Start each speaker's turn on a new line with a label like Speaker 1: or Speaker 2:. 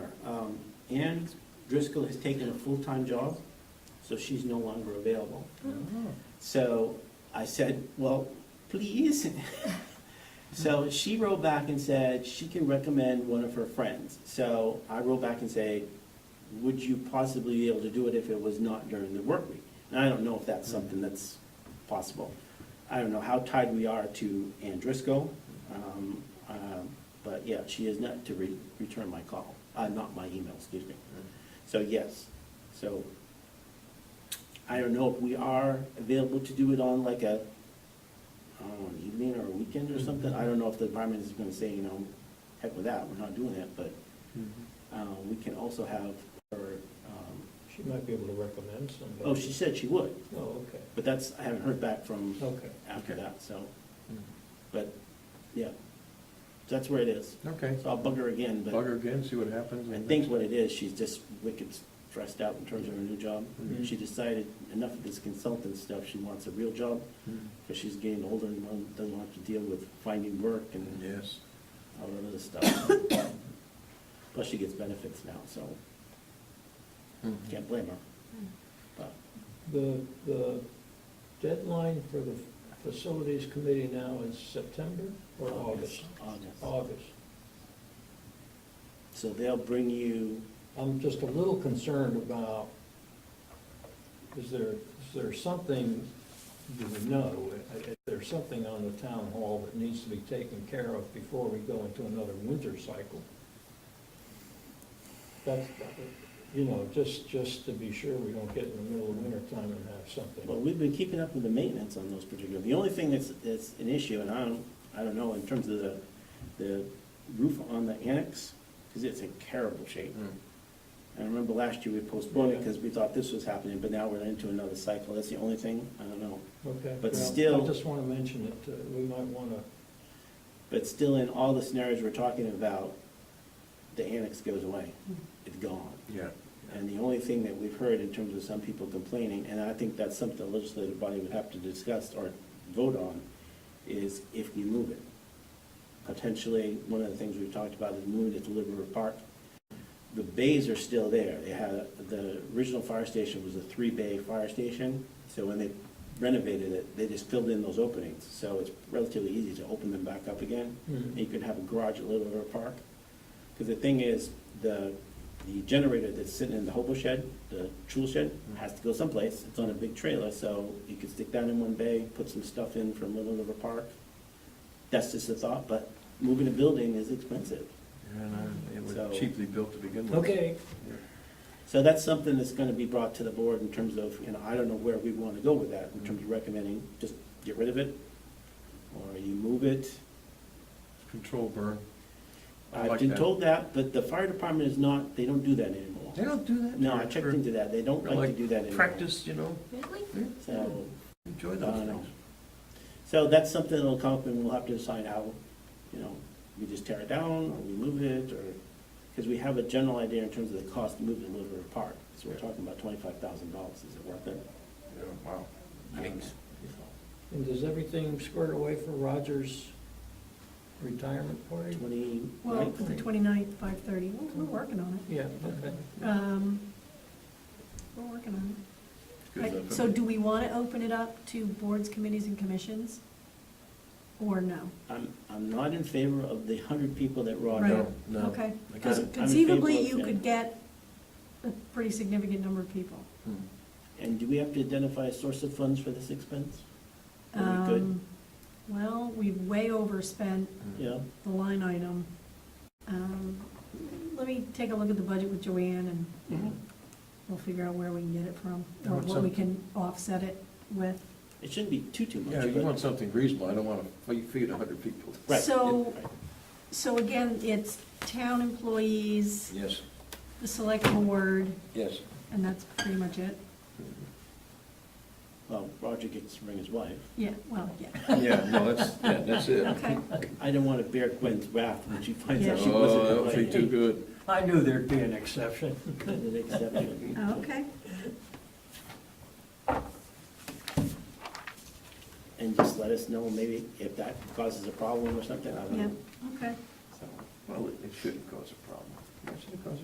Speaker 1: Ann Um, Driscoll has taken a full-time job, so she's no longer available. So I said, well, please. So she wrote back and said she can recommend one of her friends. So I wrote back and said, would you possibly be able to do it if it was not during the work week? And I don't know if that's something that's possible. I don't know how tied we are to Ann Driscoll, um, um, but yeah, she is not to re- return my call, uh, not my email, excuse me. So yes, so I don't know if we are available to do it on like a, I don't know, an evening or a weekend or something. I don't know if the environment is gonna say, you know, heck with that, we're not doing that, but, uh, we can also have her, um,
Speaker 2: She might be able to recommend somebody.
Speaker 1: oh, she said she would,
Speaker 2: Oh, okay,
Speaker 1: but that's, I haven't heard back from
Speaker 2: Oh, okay.
Speaker 1: after that, so, but, yeah. That's where it is.
Speaker 3: Okay,
Speaker 1: So I'll bug her again,
Speaker 3: bug
Speaker 1: but
Speaker 3: her again, see what happens.
Speaker 1: I
Speaker 3: and
Speaker 1: think what it is, she's just wicked stressed out in terms of her new job.
Speaker 2: Mhm.
Speaker 1: She decided enough of this consultant stuff, she wants a real job.
Speaker 3: Mm,
Speaker 1: Because she's getting older and one doesn't have to deal with finding work and
Speaker 3: Yes,
Speaker 1: all that other stuff. Plus she gets benefits now, so
Speaker 3: Mhm.
Speaker 1: can't blame her. But
Speaker 2: The, the deadline for the facilities committee now is September or August?
Speaker 1: August.
Speaker 2: August.
Speaker 1: So they'll bring you,
Speaker 2: I'm just a little concerned about, is there, is there something, do we know, is there something on the town hall that needs to be taken care of before we go into another winter cycle? That's, you know, just, just to be sure we don't get in the middle of winter time and have
Speaker 1: well,
Speaker 2: something.
Speaker 1: we've been keeping up with the maintenance on those particular, the only thing that's, that's an issue, and I don't, I don't know, in terms of the, the roof on the annex, because it's in terrible shape.
Speaker 3: Mm.
Speaker 1: I remember last year we postponed it
Speaker 2: Yeah.
Speaker 1: because we thought this was happening, but now we're into another cycle. That's the only thing, I don't know.
Speaker 2: Okay.
Speaker 1: but
Speaker 2: well,
Speaker 1: still-
Speaker 2: I just want to mention it, uh, we might want to,
Speaker 1: But still, in all the scenarios we're talking about, the annex goes away. It's gone.
Speaker 3: yeah.
Speaker 1: And the only thing that we've heard in terms of some people complaining, and I think that's something the legislative body would have to discuss or vote on, is if we move it. Potentially, one of the things we've talked about is moving it to Little River Park. The bays are still there. They had, the original fire station was a three-bay fire station. So when they renovated it, they just filled in those openings. So it's relatively easy to open them back up again.
Speaker 2: Mhm.
Speaker 1: You could have a garage at Little River Park. Because the thing is, the, the generator that's sitting in the hobo shed, the tool shed,
Speaker 3: Mm-hmm.
Speaker 1: has to go someplace. It's on a big trailer, so you could stick that in one bay, put some stuff in from Little River Park. That's just a thought, but moving a building is expensive.
Speaker 3: And uh, it
Speaker 1: So-
Speaker 3: was cheaply built to begin with.
Speaker 2: okay,
Speaker 1: So that's something that's gonna be brought to the board in terms of, you know, I don't know where we wanna go with that, in terms of recommending, just get rid of it, or you move it.
Speaker 3: Control burn. I
Speaker 1: I've
Speaker 3: like
Speaker 1: been
Speaker 3: that.
Speaker 1: told that, but the fire department is not, they don't do that anymore.
Speaker 3: They don't do that?
Speaker 1: No, I
Speaker 3: for-
Speaker 1: checked
Speaker 3: for-
Speaker 1: into that, they don't
Speaker 3: for
Speaker 1: like to do that anymore.
Speaker 3: Practice, you know,
Speaker 4: Really?
Speaker 1: So,
Speaker 3: enjoy
Speaker 1: I
Speaker 3: those
Speaker 1: don't know.
Speaker 3: things.
Speaker 1: so that's something that'll come up and we'll have to decide how, you know, we just tear it down or we move it or, because we have a general idea in terms of the cost to move it a little bit apart. So we're talking about twenty-five thousand dollars. Is it worth it?
Speaker 3: Yeah, wow.
Speaker 1: I don't know.
Speaker 2: and does everything squared away for Roger's retirement party?
Speaker 1: Twenty,
Speaker 4: Well,
Speaker 1: right?
Speaker 4: the 29th, 5:30, We're- we're working on
Speaker 2: Yeah, okay.
Speaker 4: it. Um, We're working on it.
Speaker 3: Good
Speaker 4: Right,
Speaker 3: enough.
Speaker 4: So do we want to open it up to boards, committees, and commissions? Or no?
Speaker 1: I'm, I'm not in favor of the hundred people that Rod.
Speaker 4: Right.
Speaker 3: No, no.
Speaker 4: Okay.
Speaker 3: I got
Speaker 4: Because
Speaker 3: it.
Speaker 1: I'm in favor
Speaker 4: conceivably,
Speaker 1: of
Speaker 4: you
Speaker 1: that.
Speaker 4: could get a pretty significant number of people.
Speaker 3: Mm.
Speaker 1: And do we have to identify a source of funds for this expense? Are we good?
Speaker 4: Um, Well, we've way overspent
Speaker 3: Mm.
Speaker 1: Yeah,
Speaker 4: the line item. Um, Let me take a look at the budget with Joanne and
Speaker 3: Mm-hmm.
Speaker 1: Mm-hmm.
Speaker 4: we'll figure out where we can get it from,
Speaker 3: Yeah,
Speaker 4: or
Speaker 3: what's
Speaker 4: what we
Speaker 3: up?
Speaker 4: can offset it with.
Speaker 1: it shouldn't be too, too much.
Speaker 3: Yeah, you
Speaker 1: but-
Speaker 3: want something reasonable, I don't want to feed a hundred people.
Speaker 1: Right.
Speaker 4: So-
Speaker 1: Right.
Speaker 4: So again, it's town employees,
Speaker 3: Yes,
Speaker 4: the select board,
Speaker 3: yes.
Speaker 4: and that's pretty much it.
Speaker 1: Well, Roger gets to bring his wife.
Speaker 4: Yeah, well, yeah,
Speaker 3: Yeah, no, that's, yeah, that's it.
Speaker 4: okay.
Speaker 1: I don't want to bear Gwen's wrath when she finds out she wasn't
Speaker 3: Oh, that would be
Speaker 1: invited.
Speaker 3: too good.
Speaker 2: I knew there'd be an exception.
Speaker 1: An exception.
Speaker 4: Oh, Okay,
Speaker 1: And just let us know maybe if that causes a problem or something, I don't
Speaker 4: yeah,
Speaker 1: know.
Speaker 4: okay.
Speaker 1: So.
Speaker 3: Well, it- it shouldn't cause a problem. It shouldn't cause a